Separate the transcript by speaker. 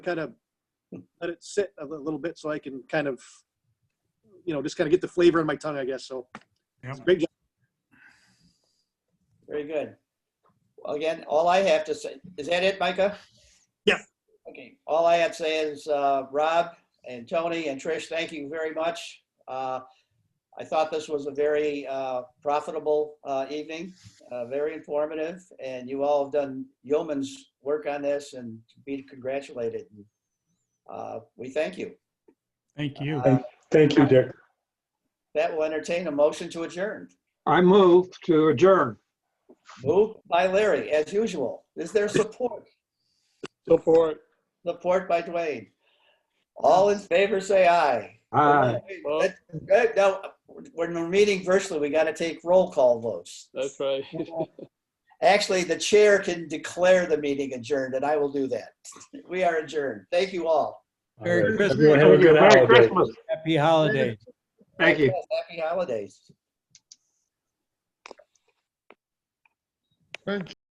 Speaker 1: kind of let it sit a li- little bit so I can kind of, you know, just kind of get the flavor in my tongue, I guess. So,
Speaker 2: Yep.
Speaker 1: great job.
Speaker 3: Very good. Again, all I have to say, is that it, Micah?
Speaker 2: Yep.
Speaker 3: Okay, all I have to say is, uh, Rob and Tony and Trish, thank you very much. Uh, I thought this was a very, uh, profitable, uh, evening, uh, very informative, and you all have done yeoman's work on this and to be congratulated. Uh, we thank you.
Speaker 2: Thank you.
Speaker 3: Uh,
Speaker 4: Thank you, Dick.
Speaker 3: That will entertain a motion to adjourn.
Speaker 4: I move to adjourn.
Speaker 3: Moved by Larry, as usual. Is there support?
Speaker 4: Support.
Speaker 3: Support by Dwayne. All in favor, say aye.
Speaker 4: Aye.
Speaker 3: Wait, wait, that- Now, when we're meeting virtually, we got to take roll call votes.
Speaker 5: That's right.
Speaker 3: Actually, the chair can declare the meeting adjourned, and I will do that. We are adjourned. Thank you all.
Speaker 6: Merry
Speaker 4: Everyone
Speaker 6: Christmas,
Speaker 4: have a good holiday. Merry Christmas.
Speaker 6: happy holidays.
Speaker 4: Thank you.
Speaker 3: Happy holidays.